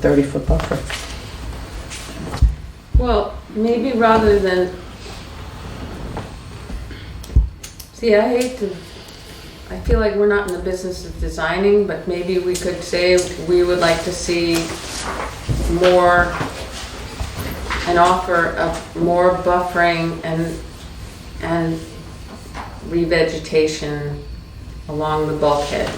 30-foot buffer. Well, maybe rather than, see, I hate to, I feel like we're not in the business of designing, but maybe we could say we would like to see more, an offer of more buffering and, and revegetation along the bulkhead.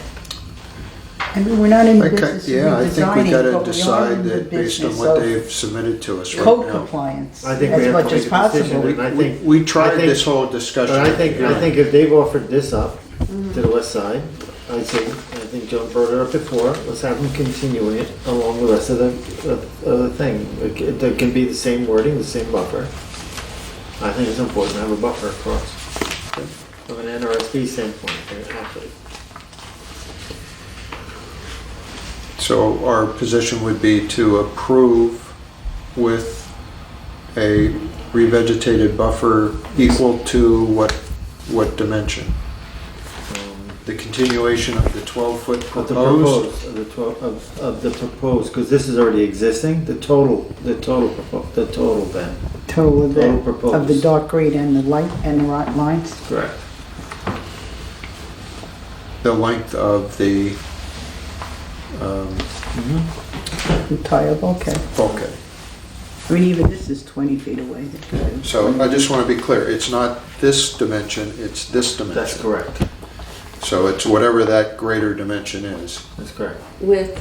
I mean, we're not in the I ca- business Yeah, of I think we redesigning, but gotta we are decide in the that based on business what of they've submitted to us code right now. compliance I think we as have to much as make a decision, possible. and I We, think- we tried I think- this whole discussion. But I think, I yeah. think if they've offered this up to the west side, I think, I think John brought it up before, let's have them continue it along the rest of the, of of the thing. It c- There can be the same wording, the same buffer. I think it's important to have a buffer across from an NRSD standpoint, uh, actually. So our position would be to approve with a revegetated buffer equal to what, what dimension? Um, The continuation of the twelve foot Of the proposed? proposed, of the twelve, of, of the proposed, because this is already existing, the total, the total, propo- the total then. Total of Total the, proposed. of the dark green and the light and the right lines. Correct. The length of the, um, Mm-hmm. Entire bulkhead. bulkhead. I mean, even this is 20 feet away. So I just want to be clear, it's not this dimension, it's this That's dimension. correct, So it's whatever that greater dimension is. that's correct. With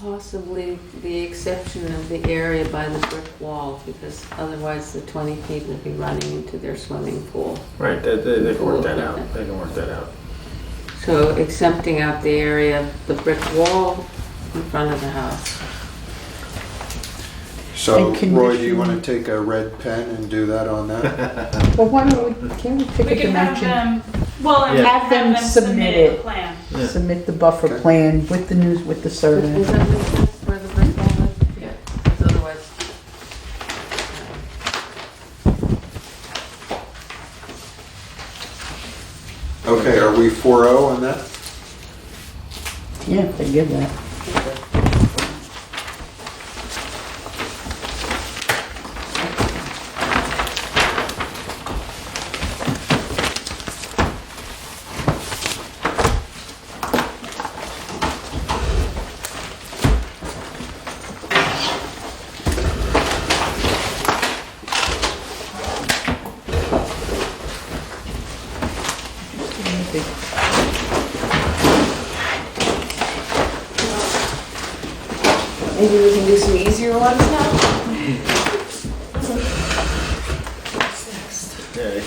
possibly the exception of the area by the brick wall, because otherwise the 20 feet would be running into their swimming pool. Right, they, they, they can work that out, they can work that out. So exempting out the area of the brick wall in front of the house. So And can Roy, we- do you want to take a red pen and do that on that? Well, why don't we, can we pick We a can have um, dimension? them, well, and Yeah. have them submit it. a plan. Yeah. Submit the buffer plan with the news, with the Does survey. that make sense where the brick wall is? Yeah, 'cause otherwise. Okay, are we 4-0 on that? Yeah, they give that. Maybe we can do some easier ones now? Yeah.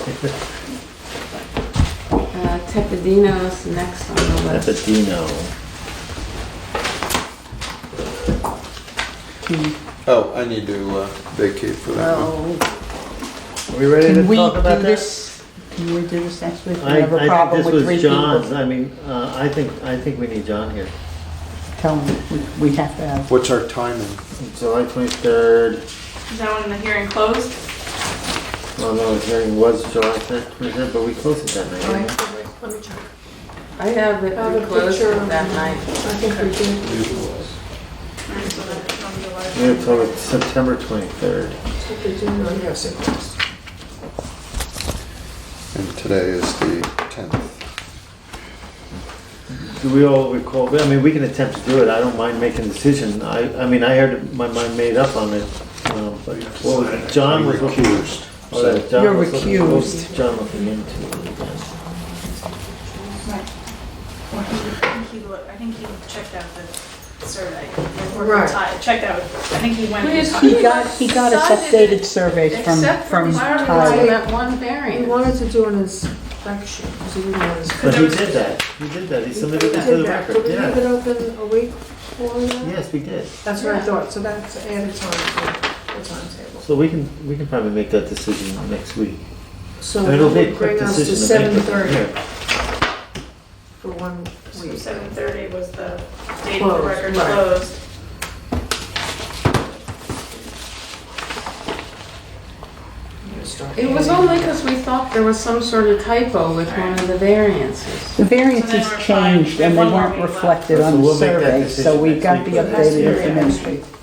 Uh, Tepidino's next on the list. Epidino. Oh, I need to uh, vacate for that one. Oh, Are we ready Can to we talk do about this? this, can we do this next week? We I, have a I problem think with this three was people. John's, I mean, uh, I think, I think we need John here. Tell them, we- we have to have, What's our timing? July twenty-third, Is that when the hearing closed? well, no, the hearing was July twenty-third, but we closed it that night. didn't we? Let me check. I have it Have a closed picture of- that night. I think we did. We had till September twenty-third. If we do, I'm guessing. And today is the 10th. Do we all recall, I mean, we can attempt to do it, I don't mind making a decision, I, I mean, I heard my mind made up on it. um, But what was- John was looking. Recused. Oh, that John You're was looking- recused. John looking into it again. Or he- I think he looked- I think he checked out the survey. or Right. ti- Checked out, I think he went. Yes, and he- ti- he got, he got us Decided updated surveys from, Except for from fire Tyler. retardant, that one We variance. wanted to do an inspection, so we wanted But to. he did that, he did that, he submitted it to the record, Did we leave it yeah. open a week for that? Yes, we did. That's what I thought, so that's added time to the timetable. So we can, we can probably make that decision next week. So It'll be a it'll quick bring us to decision. to seven make, but- thirty yeah. for one So week. seven thirty was the date the Closed, record right. closed. Just start. It was only because we thought there was some sort of typo with one of the variances. The variances So they were fine. changed and they One more weren't meeting left. reflected So on the we'll make that survey, so decision we've next got the week. updated information.